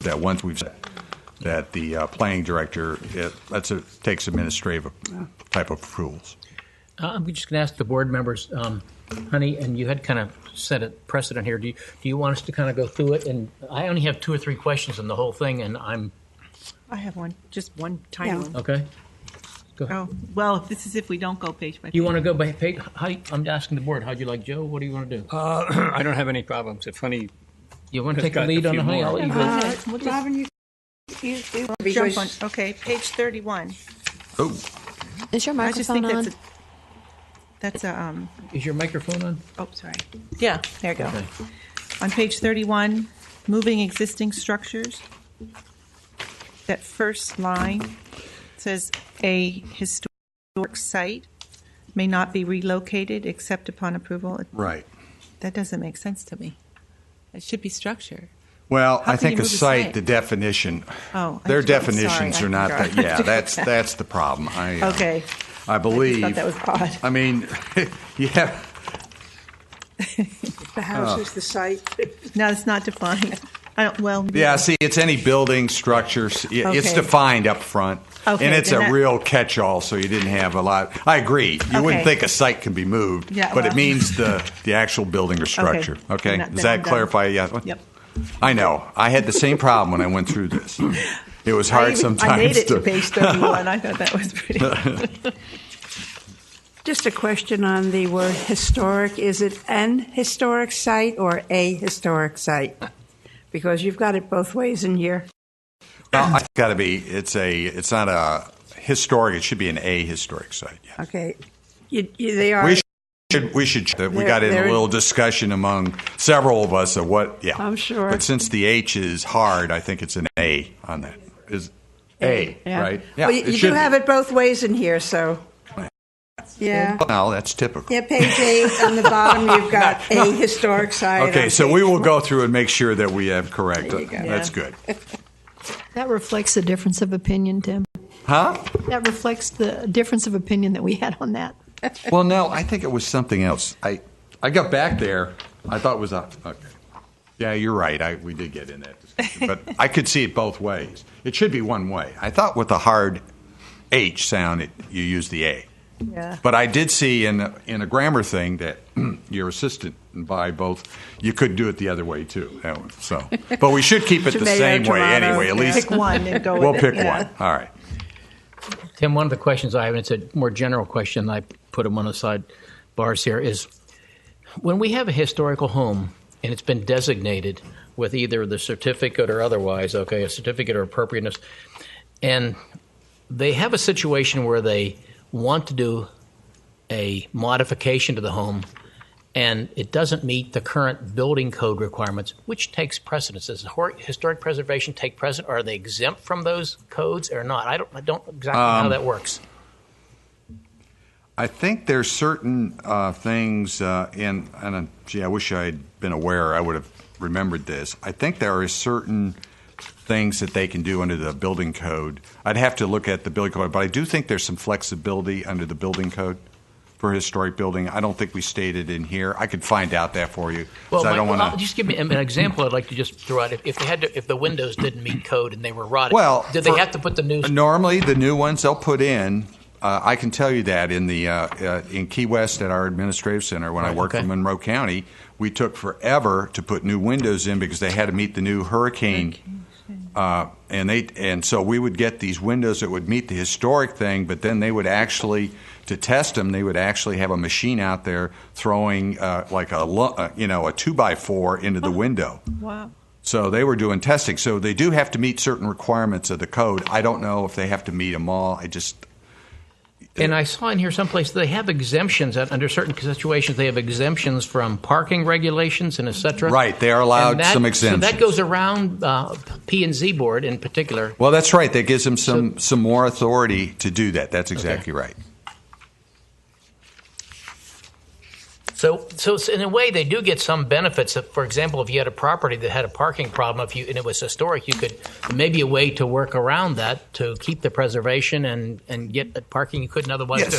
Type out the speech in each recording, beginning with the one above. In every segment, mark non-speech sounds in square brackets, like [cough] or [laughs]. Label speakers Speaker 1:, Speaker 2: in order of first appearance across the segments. Speaker 1: that once we've said that the uh, planning director, it, that's a, takes administrative type of rules.
Speaker 2: Uh, I'm just going to ask the board members, um, honey, and you had kind of set a precedent here. Do you, do you want us to kind of go through it? And I only have two or three questions on the whole thing, and I'm
Speaker 3: I have one, just one tiny
Speaker 4: Yeah.
Speaker 3: one.
Speaker 2: okay.
Speaker 3: Oh, well, this is if we don't go page by page.
Speaker 2: You want to go by page? How, I'm asking the board. How'd you like Joe? What do you want to do?
Speaker 5: Uh, [clears throat] I don't have any problems. If honey,
Speaker 2: you want to
Speaker 5: I've
Speaker 2: take a
Speaker 5: got a
Speaker 2: lead on
Speaker 5: few
Speaker 2: the honey?
Speaker 5: more.
Speaker 2: I'll let you go.
Speaker 4: Uh, Robin, you, you, you
Speaker 3: Jump
Speaker 4: because-
Speaker 3: on, okay, page thirty-one.
Speaker 1: Oh,
Speaker 6: Is your
Speaker 3: I just think
Speaker 6: microphone on?
Speaker 3: that's a, that's a, um,
Speaker 2: Is your microphone on?
Speaker 3: oh, sorry. Yeah, there you go. On page thirty-one, moving existing structures. That first line says a historic site may not be relocated except upon approval.
Speaker 1: right.
Speaker 3: That doesn't make sense to me. It should be structure.
Speaker 1: Well,
Speaker 3: How
Speaker 1: I
Speaker 3: can you
Speaker 1: think a
Speaker 3: move a
Speaker 1: site,
Speaker 3: site?
Speaker 1: the definition,
Speaker 3: Oh, I
Speaker 1: their
Speaker 3: do- I'm sorry,
Speaker 1: definitions
Speaker 3: [laughs] I
Speaker 1: are not
Speaker 3: forgot.
Speaker 1: that, yeah, that's, that's the problem. I, uh,
Speaker 3: [laughs] Okay.
Speaker 1: I believe.
Speaker 3: that was odd.
Speaker 1: I mean, [laughs] yeah, Ah.
Speaker 4: the house is the site.
Speaker 3: No, it's not defined. I don't, well.
Speaker 1: yeah, see, it's any building, structure, s- i- it's
Speaker 3: Okay.
Speaker 1: defined up front. And
Speaker 3: Okay,
Speaker 1: it's
Speaker 3: then
Speaker 1: a
Speaker 3: that-
Speaker 1: real catch-all, so you didn't have a lot, I agree. You wouldn't
Speaker 3: Okay.
Speaker 1: think a site can be moved,
Speaker 3: Yeah,
Speaker 1: but it
Speaker 3: well-
Speaker 1: means the, the actual building or structure.
Speaker 3: Okay.
Speaker 1: Okay,
Speaker 3: Then-
Speaker 1: does
Speaker 3: then I'm
Speaker 1: that
Speaker 3: done.
Speaker 1: clarify? Yeah.
Speaker 3: Yep.
Speaker 1: I know. I had the same problem when I went through
Speaker 3: [laughs]
Speaker 1: this. It was
Speaker 3: I
Speaker 1: hard
Speaker 3: even-
Speaker 1: sometimes.
Speaker 3: I made it to
Speaker 1: to-
Speaker 3: page 31. I thought that
Speaker 1: [laughs]
Speaker 3: was pretty.
Speaker 4: Just a question on the word historic. Is it an historic site or a historic site? Because you've got it both ways in here.
Speaker 1: Well, it's got to be. It's a. It's not a historic. It should be an a historic site. Yeah.
Speaker 4: Okay. You, you, they are.
Speaker 1: We should. We should. that We
Speaker 4: There-
Speaker 1: got in a
Speaker 4: there-
Speaker 1: little discussion among several of us of what. Yeah.
Speaker 4: I'm sure.
Speaker 1: But since the H is hard, I think it's an A on that. Is a,
Speaker 4: yeah.
Speaker 1: right?
Speaker 4: Well, you
Speaker 1: it
Speaker 4: you
Speaker 1: should
Speaker 4: do
Speaker 1: be.
Speaker 4: have it both ways in here, so. Yeah.
Speaker 1: Well, that's typical.
Speaker 4: Yeah, page eight on the bottom,
Speaker 1: [laughs]
Speaker 4: you've got a historic site.
Speaker 1: Okay,
Speaker 4: on
Speaker 1: so we
Speaker 4: page
Speaker 1: will
Speaker 4: one.
Speaker 1: go through and make sure that we have correct.
Speaker 4: There you go.
Speaker 1: That's
Speaker 3: Yeah.
Speaker 1: good.
Speaker 6: That reflects the difference of opinion, Tim.
Speaker 1: Huh?
Speaker 6: That reflects the difference of opinion that we had on that.
Speaker 1: Well, no, I think it was something else. I I got back there. I thought it was a okay. Yeah, you're right. I we did get in that discussion, but I could see it both ways. It should be one way. I thought with the hard H sound, it, you use the A.
Speaker 3: Yeah.
Speaker 1: But I did see in in a grammar thing that [clears throat] your assistant and by both you could do it the other way too. That one, So, but we should keep it the
Speaker 4: Tomato,
Speaker 1: same way
Speaker 4: tomato,
Speaker 1: anyway. At
Speaker 4: yeah.
Speaker 1: least
Speaker 3: Pick one and go with
Speaker 1: we'll
Speaker 3: it,
Speaker 1: pick
Speaker 3: yeah.
Speaker 1: one. All right.
Speaker 2: Tim, one of the questions I have, and it's a more general question, I put them on the side bars here, is when we have a historical home and it's been designated with either the certificate or otherwise, okay, a certificate or appropriateness, and they have a situation where they want to do a modification to the home and it doesn't meet the current building code requirements, which takes precedence? Does hor- historic preservation take precedent? Are they exempt from those codes or not? I don't, I don't exactly know
Speaker 1: Um,
Speaker 2: how that works.
Speaker 1: I think there's certain uh, things, uh, and, and uh, gee, I wish I had been aware. I would have remembered this. I think there are certain things that they can do under the building code. I'd have to look at the building code, but I do think there's some flexibility under the building code for historic building. I don't think we stated in here. I could find out that for you. 'cause I
Speaker 2: Mike,
Speaker 1: don't want
Speaker 2: I'll- just give me an an example. I'd like to just throw out if, if they had to, if the windows didn't meet code and they were rotted.
Speaker 1: Well,
Speaker 2: did they
Speaker 1: for-
Speaker 2: have to put the new?
Speaker 1: Normally, the new ones they'll put in. Uh, I can tell you that in the uh, uh, in Key West at our administrative center when I
Speaker 2: Right,
Speaker 1: worked
Speaker 2: okay.
Speaker 1: in Monroe County, we took forever to put new windows in because they had to meet the new hurricane. Uh, and they and so we would get these windows that would meet the historic thing, but then they would actually to test them, they would actually have a machine out there throwing uh, like a lu- uh, you know a two by four into the window.
Speaker 3: Wow.
Speaker 1: So they were doing testing. So they do have to meet certain requirements of the code. I don't know if they have to meet them all. I just
Speaker 2: And I saw in here someplace they have exemptions that under certain situations. They have exemptions from parking regulations and et cetera.
Speaker 1: Right, they are allowed
Speaker 2: And that-
Speaker 1: some
Speaker 2: So
Speaker 1: exemptions.
Speaker 2: that goes around uh, P and Z board in particular.
Speaker 1: well, that's right. That gives them some some more authority to do that. That's exactly right.
Speaker 2: So, so it's- in a way, they do get some benefits. For example, if you had a property that had a parking problem, if you and it was historic, you could maybe a way to work around that to keep the preservation and and get the parking you couldn't otherwise
Speaker 1: Yes,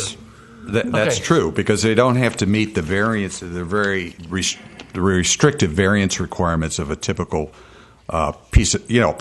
Speaker 2: do.
Speaker 1: That, that's
Speaker 2: Okay.
Speaker 1: true because they don't have to meet the variance, the very rest, the restrictive variance requirements of a typical uh, piece of you know